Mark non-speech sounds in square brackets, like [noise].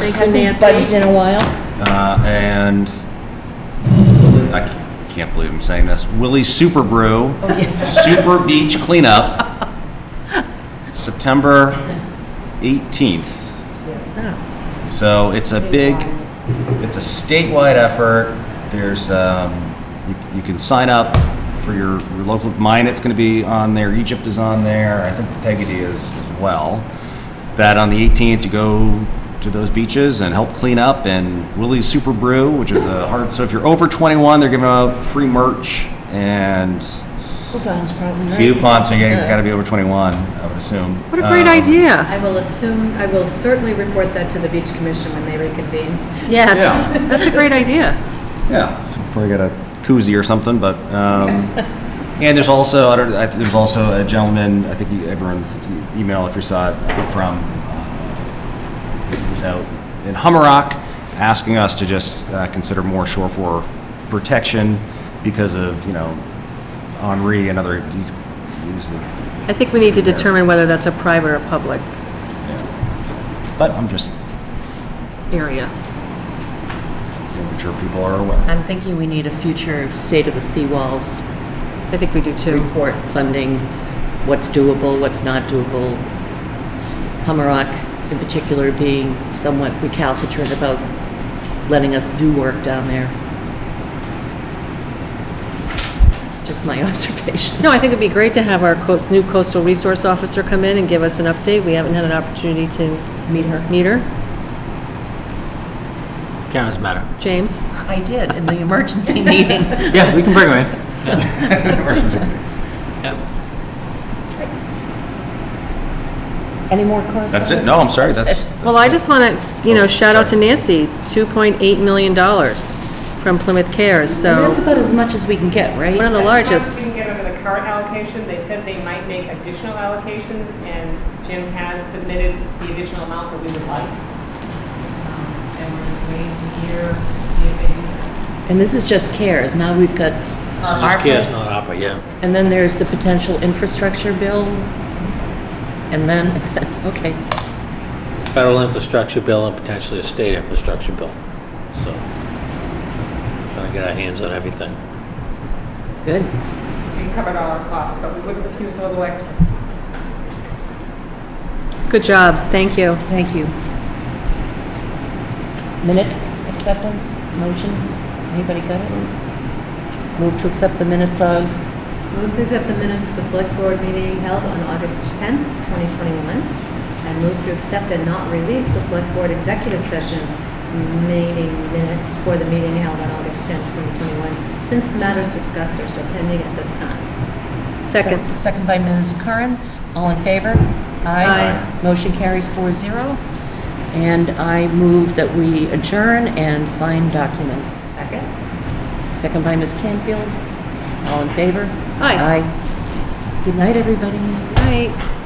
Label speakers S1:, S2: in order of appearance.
S1: Yes.
S2: Thank you,
S3: Hasn't
S2: Nancy.
S3: budged in a while.
S1: Uh, and I ca- can't believe I'm saying this. Willie's Super Brew, Super Beach Cleanup, September 18th.
S4: Oh.
S1: So it's a big, it's a statewide effort. There's, um, you, you can sign up for your, your local, mine, it's gonna be on there, Egypt is on there, I think Peggy is as well. That on the 18th, you go to those beaches and help clean up and Willie's Super Brew, which is a hard, so if you're over 21, they're giving out free merch and
S3: Coupon's probably right.
S1: coupons, so you gotta be over 21, I would assume.
S4: What a great
S1: Um,
S4: idea.
S2: I will assume, I will certainly report that to the beach commission when they reconvene.
S4: Yes,
S1: Yeah.
S4: that's a great idea.
S1: Yeah, so probably got a koozie or something, but, um, and there's also, I don't, I, think there's also a gentleman, I think you- everyone's email, if you saw it, uh, from, uh, he was out in Hummerock, asking us to just, uh, consider more shore for protection because of, you know, Henri and other, he's, he's the,
S4: I think we need to determine whether that's a private or public
S1: yeah. so, But I'm just,
S4: area.
S1: making sure people are aware.
S5: I'm thinking we need a future state of the seawalls
S4: I think we do too.
S5: report funding, what's doable, what's not doable. Hummerock in particular being somewhat recalcitrant about letting us do work down there. Just my [laughs] observation.
S4: No, I think it'd be great to have our coast- new coastal resource officer come in and give us an update. We haven't had an opportunity to
S5: Meet her.
S4: meet her.
S6: Karen's matter.
S4: James?
S5: I did, in the emergency meeting. [laughs]
S6: Yeah, we can bring her in.
S1: [laughs]
S6: Yeah.
S3: Any more correspondence?
S1: That's it, no, I'm sorry, that's,
S4: Well, I just want to, you know, shout out to Nancy, $2.8 million from Plymouth Cares,
S5: And that's
S4: so
S5: about as much as we can get, right?
S4: one of the largest.
S7: Didn't get over the current allocation, they said they might make additional allocations, and Jim has submitted the additional amount that we would like. Um, And we're just waiting to hear if they,
S5: And this is just CARES. Now we've got
S6: Just
S5: ARPA.
S6: Karen's not opera, yeah.
S5: And then there's the potential infrastructure bill. And then, [laughs] okay.
S6: Federal infrastructure bill and potentially a state infrastructure bill. So, trying to get our hands on everything.
S5: Good.
S7: we covered all our costs, but we wouldn't refuse a little extra.
S4: Good job, thank you.
S5: Thank you. Minutes, acceptance, motion? Anybody got it? Move to accept the minutes of,
S2: Move to accept the minutes for select board meeting held on August 10th, 2021. And move to accept and not release the select board executive session meeting minutes for the meeting held on August 10th, 2021, since the matters discussed are still pending at this time.
S4: Second.
S5: second by Ms. Curran. All in favor?
S4: Aye.
S5: Motion carries four zero. And I move that we adjourn and sign documents.
S2: Second?
S5: Second by Ms. Canfield. All in favor?
S4: Aye.
S5: Aye. Good night, everybody.
S4: Bye.